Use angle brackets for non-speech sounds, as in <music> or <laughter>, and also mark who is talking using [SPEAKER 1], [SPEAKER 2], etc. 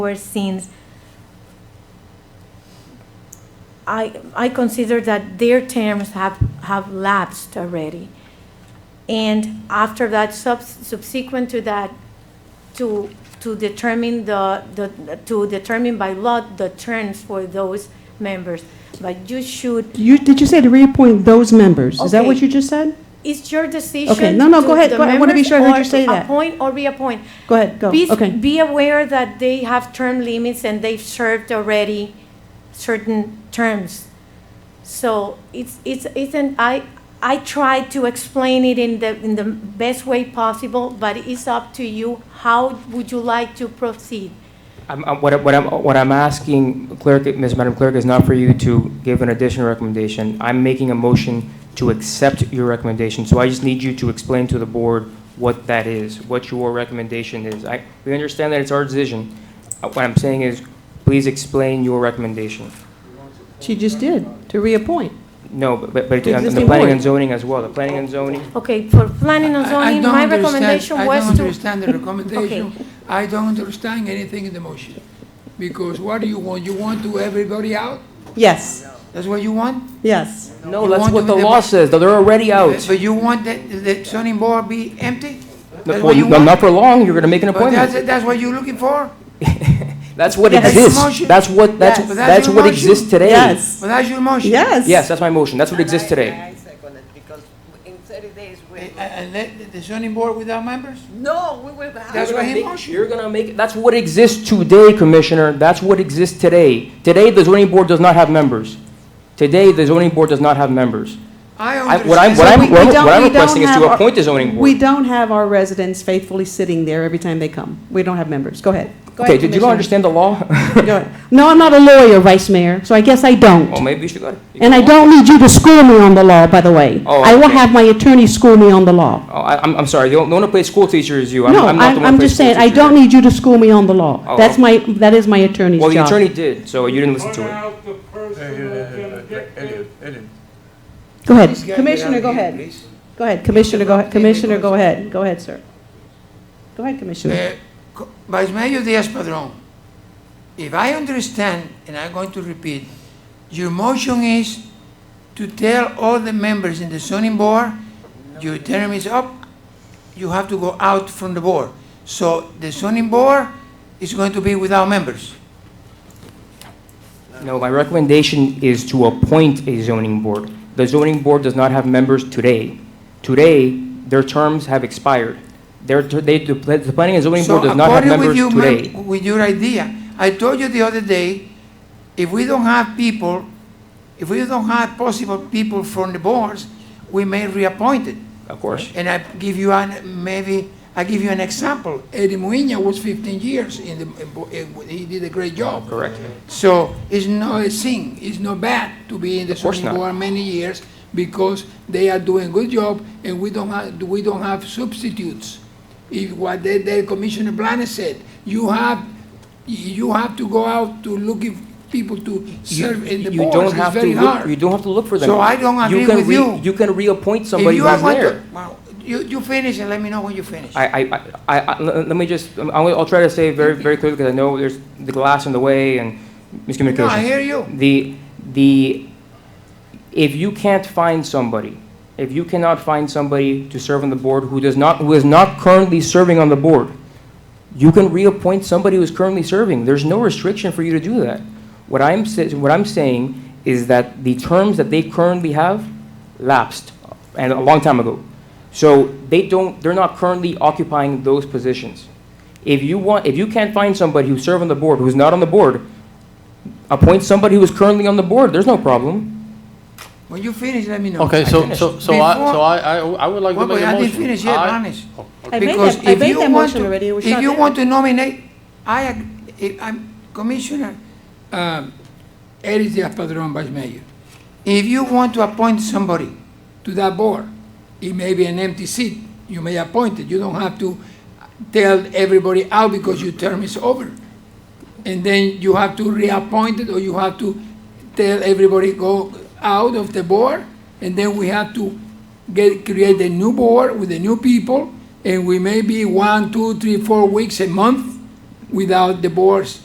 [SPEAKER 1] were scenes, I, I consider that their terms have, have lapsed already. And after that, sub- subsequent to that, to, to determine the, the, to determine by law the terms for those members. But you should,
[SPEAKER 2] You, did you say to reappoint those members? Is that what
[SPEAKER 1] Okay.
[SPEAKER 2] you just said?
[SPEAKER 1] it's your decision.
[SPEAKER 2] Okay, no, no, go ahead.
[SPEAKER 1] the
[SPEAKER 2] Go- I wanna be
[SPEAKER 1] members
[SPEAKER 2] sure I heard
[SPEAKER 1] or
[SPEAKER 2] you say that.
[SPEAKER 1] Appoint or reappoint.
[SPEAKER 2] Go ahead, go,
[SPEAKER 1] Please
[SPEAKER 2] okay.
[SPEAKER 1] be aware that they have term limits and they've served already certain terms. So it's, it's, it's an, I, I try to explain it in the, in the best way possible, but it's up to you. How would you like to proceed?
[SPEAKER 3] I'm, I'm- what, I- what I'm, what I'm asking clerk, Ms. Madam Clerk, is not for you to give an additional recommendation. I'm making a motion to accept your recommendation, so I just need you to explain to the board what that is, what your recommendation is. I, we understand that it's our decision. Uh, What I'm saying is, please explain your recommendation.
[SPEAKER 2] She just did, to reappoint.
[SPEAKER 3] No, but, but, but on the
[SPEAKER 2] Existing
[SPEAKER 3] planning
[SPEAKER 2] board.
[SPEAKER 3] and zoning as well, the planning and zoning,
[SPEAKER 1] Okay, for planning and
[SPEAKER 4] I- I
[SPEAKER 1] zoning,
[SPEAKER 4] don't
[SPEAKER 1] my
[SPEAKER 4] understand-
[SPEAKER 1] recommendation
[SPEAKER 4] I
[SPEAKER 1] was
[SPEAKER 4] don't
[SPEAKER 1] to, <laughs>
[SPEAKER 4] understand the recommendation. I don't understand anything in the motion. Because what do you want? You want to everybody out?
[SPEAKER 2] Yes,
[SPEAKER 4] That's what you want?
[SPEAKER 2] yes.
[SPEAKER 3] No,
[SPEAKER 4] You
[SPEAKER 3] that's
[SPEAKER 4] want
[SPEAKER 3] what
[SPEAKER 4] to
[SPEAKER 3] the
[SPEAKER 4] be-
[SPEAKER 3] law says, though, they're already out.
[SPEAKER 4] But you want the, the zoning board be empty? That's
[SPEAKER 3] Well,
[SPEAKER 4] what you
[SPEAKER 3] you- no, not
[SPEAKER 4] want?
[SPEAKER 3] for long, you're gonna make an
[SPEAKER 4] But
[SPEAKER 3] appointment.
[SPEAKER 4] that's, that's what you're looking for?
[SPEAKER 3] That's what
[SPEAKER 2] Yes.
[SPEAKER 3] exists.
[SPEAKER 4] Motion.
[SPEAKER 3] That's what, that's,
[SPEAKER 2] Yes.
[SPEAKER 4] But that's
[SPEAKER 3] that's
[SPEAKER 4] your
[SPEAKER 3] what
[SPEAKER 4] motion.
[SPEAKER 3] exists today.
[SPEAKER 2] Yes,
[SPEAKER 4] But that's your motion?
[SPEAKER 2] yes.
[SPEAKER 3] Yes, that's my motion. That's what exists
[SPEAKER 5] And I-
[SPEAKER 3] today.
[SPEAKER 5] I second it because in 30 days, we,
[SPEAKER 4] And, and let the- the zoning board without members?
[SPEAKER 5] no, we will have.
[SPEAKER 4] That's
[SPEAKER 3] You're
[SPEAKER 4] what
[SPEAKER 3] gonna
[SPEAKER 4] he
[SPEAKER 3] make-
[SPEAKER 4] motioned.
[SPEAKER 3] You're gonna make, that's what exists today, Commissioner. That's what exists today. Today, the zoning board does not have members. Today, the zoning board does not have members.
[SPEAKER 4] I
[SPEAKER 3] I- what I'm-
[SPEAKER 4] understand.
[SPEAKER 3] what
[SPEAKER 2] So
[SPEAKER 3] I'm-
[SPEAKER 2] we- we don't-
[SPEAKER 3] what I'm
[SPEAKER 2] we don't
[SPEAKER 3] requesting is to
[SPEAKER 2] have our-
[SPEAKER 3] appoint a zoning board.
[SPEAKER 2] We don't have our residents faithfully sitting there every time they come. We don't have members. Go ahead. Go
[SPEAKER 3] Okay,
[SPEAKER 2] ahead,
[SPEAKER 3] did you not
[SPEAKER 2] Commissioner.
[SPEAKER 3] understand the
[SPEAKER 4] <laughs>
[SPEAKER 3] law? <laughs>
[SPEAKER 2] Go ahead. No, I'm not a lawyer, Vice Mayor, so I guess I
[SPEAKER 3] Well,
[SPEAKER 2] don't.
[SPEAKER 3] maybe you should go.
[SPEAKER 2] And I don't need you to school me on the law, by the way.
[SPEAKER 3] Oh,
[SPEAKER 2] I will
[SPEAKER 3] okay.
[SPEAKER 2] have my attorney school me on the law.
[SPEAKER 3] Oh, I, I'm, I'm sorry. The only one who plays school teacher is you. I'm,
[SPEAKER 2] No,
[SPEAKER 3] I'm not the
[SPEAKER 2] I'm,
[SPEAKER 3] one who
[SPEAKER 2] I'm
[SPEAKER 3] plays
[SPEAKER 2] just
[SPEAKER 3] school
[SPEAKER 2] saying,
[SPEAKER 3] teacher.
[SPEAKER 2] I don't need you to school me on the
[SPEAKER 3] Oh,
[SPEAKER 2] law. That's my, that is my attorney's job.
[SPEAKER 3] Well, the attorney did, so you didn't listen to it.
[SPEAKER 6] out the person that can get
[SPEAKER 7] Elliot, Elliot,
[SPEAKER 2] Go ahead.
[SPEAKER 4] Please get
[SPEAKER 2] Commissioner,
[SPEAKER 4] out
[SPEAKER 2] go
[SPEAKER 4] here,
[SPEAKER 2] ahead.
[SPEAKER 4] please.
[SPEAKER 2] Go ahead, Commissioner, go, ahead.
[SPEAKER 4] Interrupt me
[SPEAKER 2] Commissioner, go
[SPEAKER 4] because-
[SPEAKER 2] ahead. Go ahead, sir. Go ahead, Commissioner.
[SPEAKER 4] Eh, Co- Vice Mayor Diaz-Padrón, if I understand, and I'm going to repeat, your motion is to tell all the members in the zoning board, your term is up, you have to go out from the board. So the zoning board is going to be without members.
[SPEAKER 3] No, my recommendation is to appoint a zoning board. The zoning board does not have members today. Today, their terms have expired. Their, ter- they, the pla- the planning and zoning board does not have
[SPEAKER 4] according
[SPEAKER 3] members
[SPEAKER 4] with you, ma'am,
[SPEAKER 3] today.
[SPEAKER 4] With your idea, I told you the other day, if we don't have people, if we don't have possible people from the boards, we may reappoint it.
[SPEAKER 3] Of course.
[SPEAKER 4] And I give you an, maybe, I give you an example. Eddie Muina was 15 years in the, in bo- in- he did a great job.
[SPEAKER 3] Oh, Correct.
[SPEAKER 4] So it's not a sin, it's not bad to be in the
[SPEAKER 3] Of course
[SPEAKER 4] zoning
[SPEAKER 3] not.
[SPEAKER 4] board many years because they are doing good job and we don't have, we don't have substitutes. If what the, the Commissioner Blanes said, you have, you have to go out to look if people to serve in the
[SPEAKER 3] You don't
[SPEAKER 4] boards, it's
[SPEAKER 3] have to
[SPEAKER 4] very
[SPEAKER 3] look-
[SPEAKER 4] hard.
[SPEAKER 3] You don't have to look for them.
[SPEAKER 4] So I don't agree
[SPEAKER 3] can
[SPEAKER 4] with
[SPEAKER 3] re-
[SPEAKER 4] you.
[SPEAKER 3] You can reappoint
[SPEAKER 4] If
[SPEAKER 3] somebody
[SPEAKER 4] you
[SPEAKER 3] who's
[SPEAKER 4] want to-
[SPEAKER 3] there.
[SPEAKER 4] well, You, you finish and let me know when you finish.
[SPEAKER 3] I, I, I, I- let let me just, I'm- I'll, I'll try to say very, very clearly because I know there's the glass in the way and miscommunication.
[SPEAKER 4] No, I hear you.
[SPEAKER 3] The, the, if you can't find somebody, if you cannot find somebody to serve on the board who does not, who is not currently serving on the board, you can reappoint somebody who's currently serving. There's no restriction for you to do that. What I'm, sa- what I'm saying is that the terms that they currently have lapsed, and a long time ago. So they don't, they're not currently occupying those positions. If you want, if you can't find somebody who served on the board, who's not on the board, appoint somebody who is currently on the board, there's no problem.
[SPEAKER 4] When you finish, let me know.
[SPEAKER 7] Okay, so, so, so I,
[SPEAKER 4] Before-
[SPEAKER 7] so I, I I would like to
[SPEAKER 4] Well,
[SPEAKER 7] make
[SPEAKER 4] but
[SPEAKER 7] a
[SPEAKER 4] I
[SPEAKER 7] motion.
[SPEAKER 4] didn't finish yet,
[SPEAKER 7] I-
[SPEAKER 4] honest.
[SPEAKER 7] Oh,
[SPEAKER 2] I made
[SPEAKER 4] Because
[SPEAKER 2] that- I
[SPEAKER 4] if
[SPEAKER 2] made
[SPEAKER 4] you
[SPEAKER 2] that
[SPEAKER 4] want
[SPEAKER 2] motion
[SPEAKER 4] to-
[SPEAKER 2] already, it was
[SPEAKER 4] If
[SPEAKER 2] shot
[SPEAKER 4] you
[SPEAKER 2] down.
[SPEAKER 4] want to nominate, I, ag- if I'm Commissioner, um, Eric Diaz-Padrón, Vice Mayor. If you want to appoint somebody to that board, it may be an empty seat, you may appoint it. You don't have to tell everybody out because your term is over. And then you have to reappoint it, or you have to tell everybody go out of the board, and then we have to get, create a new board with the new people, and we may be one, two, three, four weeks, a month without the boards